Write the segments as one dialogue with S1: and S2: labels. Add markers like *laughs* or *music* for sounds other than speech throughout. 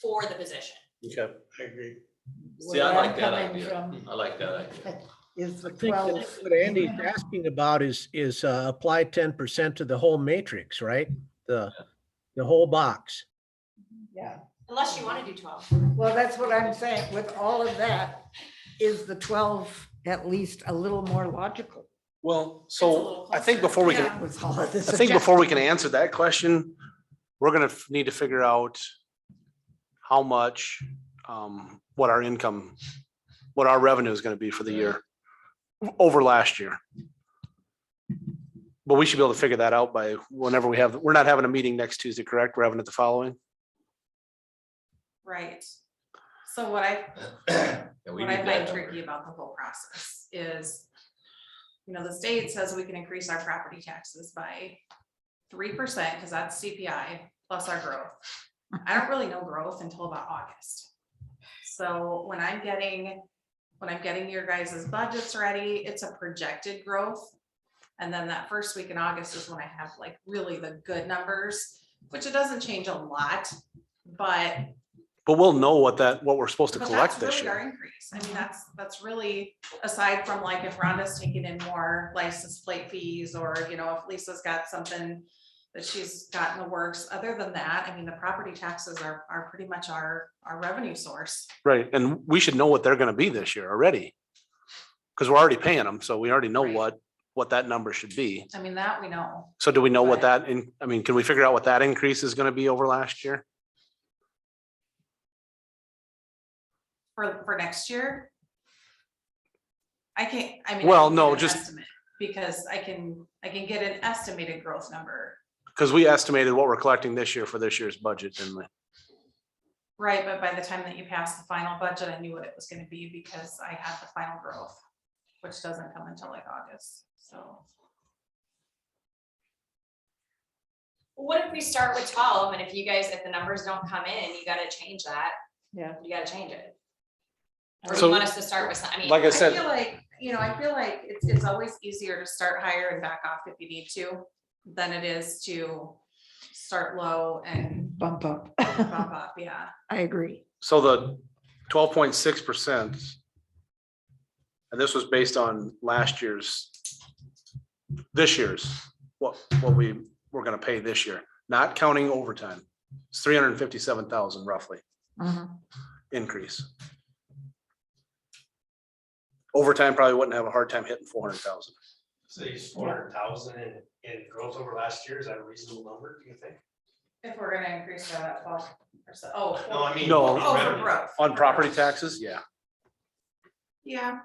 S1: for the position.
S2: Okay.
S3: I agree.
S4: See,
S5: where
S4: I
S5: I'm
S4: like that
S5: coming
S4: idea.
S5: from
S4: I like that idea.
S5: Mm-hmm. Is
S2: I
S5: the
S2: think
S5: twelve.
S2: that's what Andy's asking about is, is uh, apply ten percent to the whole matrix, right? The, the whole box.
S5: Yeah,
S1: Unless you want to do twelve.
S5: well, that's what I'm saying. With all of that, is the twelve at least a little more logical?
S6: Well,
S1: It's a
S6: so
S1: little
S6: I think
S1: closer.
S6: before we can,
S1: Yeah.
S5: With all of this.
S6: I think before we can answer that question, we're gonna f- need to figure out how much, um, what our income, what our revenue is gonna be for the year over last year. But we should be able to figure that out by whenever we have, we're not having a meeting next Tuesday, correct? We're having it the following.
S7: Right. So what I,
S4: Yeah, we need
S7: what I
S4: that
S7: find
S4: number.
S7: tricky about the whole process is, you know, the state says we can increase our property taxes by three percent, because that's CPI plus our growth. I don't really know growth until about August. So when I'm getting, when I'm getting your guys' budgets ready, it's a projected growth. And then that first week in August is when I have like really the good numbers, which it doesn't change a lot, but
S6: But we'll know what that, what we're supposed to
S7: But
S6: collect
S7: that's
S6: this
S7: really Our
S6: year.
S7: increase, I mean, that's, that's really, aside from like if Rhonda's taking in more license plate fees or, you know, if Lisa's got something that she's got in the works, other than that, I mean, the property taxes are, are pretty much our, our revenue source.
S6: Right, and we should know what they're gonna be this year already. Cause we're already paying them, so we already know
S7: Right.
S6: what, what that number should be.
S7: I mean, that we know.
S6: So do we know what
S7: Right.
S6: that, in? I mean, can we figure out what that increase is gonna be over last year?
S7: For, for next year? I can't, I mean. I
S6: Well,
S7: can get
S6: no,
S7: an
S6: just-
S7: estimate, Because I can, I can get an estimated growth number,
S6: Because we estimated what we're collecting this year for this year's budget, didn't we?
S7: right, but by the time that you pass the final budget, I knew what it was gonna be because I had the final growth. Which doesn't come until like August, so.
S1: What if we start with twelve and if you guys, if the numbers don't come in, you gotta change that.
S5: Yeah.
S1: You gotta change it. Or you
S6: So-
S1: want us to start with some, I mean.
S6: Like I
S7: I
S6: said,
S7: feel like, you know, I feel like it's, it's always easier to start higher and back off if you need to, than it is to start low and
S5: Bump up.
S7: bump up, yeah.
S5: I agree.
S6: so the twelve point six percent. And this was based on last year's, this year's, what, what we were gonna pay this year, not counting overtime. It's three hundred and fifty-seven thousand roughly
S5: *laughs* Mhm.
S6: increase. Overtime probably wouldn't have a hard time hitting four hundred thousand.
S3: So you use four hundred thousand in, in growth over last year, is that a reasonable number, do you think?
S7: If we're gonna increase that twelve percent, oh.
S3: No, I mean.
S6: No.
S7: Oh, for
S3: revenue.
S7: growth.
S6: On property taxes, yeah.
S7: Yeah,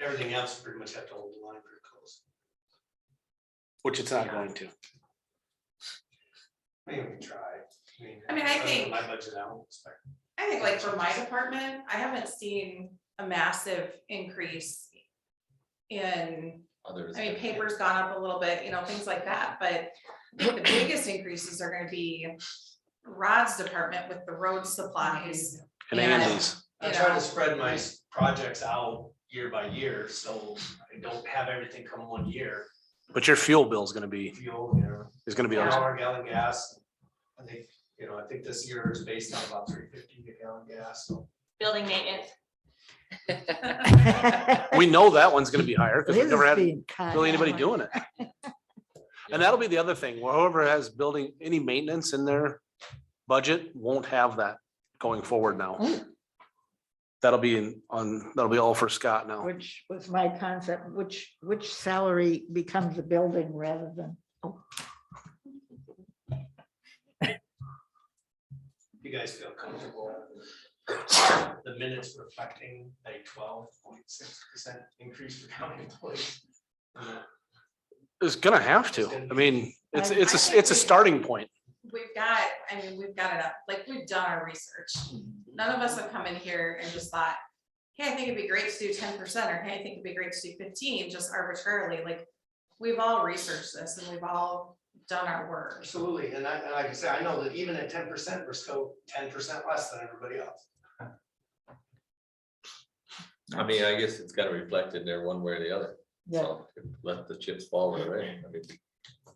S3: Everything else pretty much have to hold the line pretty close.
S6: Which it's not going to.
S3: Maybe we can try.
S7: I mean, I
S3: other than
S7: think-
S3: My budget, I don't expect.
S7: I think like for my department, I haven't seen a massive increase in,
S4: Others.
S7: I mean, paper's gone up a little bit, you know, things like that, but I think the biggest increases are gonna be Rod's department with the road supplies,
S6: And
S7: Yeah.
S6: Andy's.
S3: I try to spread my s- projects out year by year, so I don't have everything come one year.
S6: But your fuel bill is gonna be,
S3: Fuel, you know,
S6: is gonna be,
S3: four
S6: on-
S3: dollar gallon gas. I think, you know, I think this year is based on about three fifty a gallon gas, so.
S1: Building maintenance.
S6: we know that one's gonna be higher because we've
S5: Liz
S6: never
S5: is
S6: had
S5: being kind.
S6: really anybody doing it.
S5: *laughs*
S6: And that'll be the other thing, whoever has building, any maintenance in their budget won't have that going forward
S5: Oh.
S6: now. That'll be in- on, that'll be all for Scott now.
S5: Which was my concept, which, which salary becomes a building rather than,
S3: You guys feel comfortable? The minutes reflecting a twelve point six percent increase for county employees.
S6: It's gonna have to. I mean, it's, it's, a it's a starting point.
S7: we've got, I mean, we've got it up, like, we've done our research. None of us have come in here and just thought, hey, I think it'd be great to do ten percent, or hey, I think it'd be great to do fifteen, just arbitrarily, like, we've all researched this and we've all done our work.
S3: Absolutely, and I, and like I said, I know that even at ten percent, we're still ten percent less than everybody else.
S4: I mean, I guess it's gotta reflect in there one way or the other.
S5: yeah,
S4: So Let the chips fall where they may. I mean,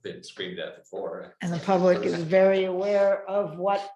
S4: Been screamed at before.
S5: and the public is very aware of what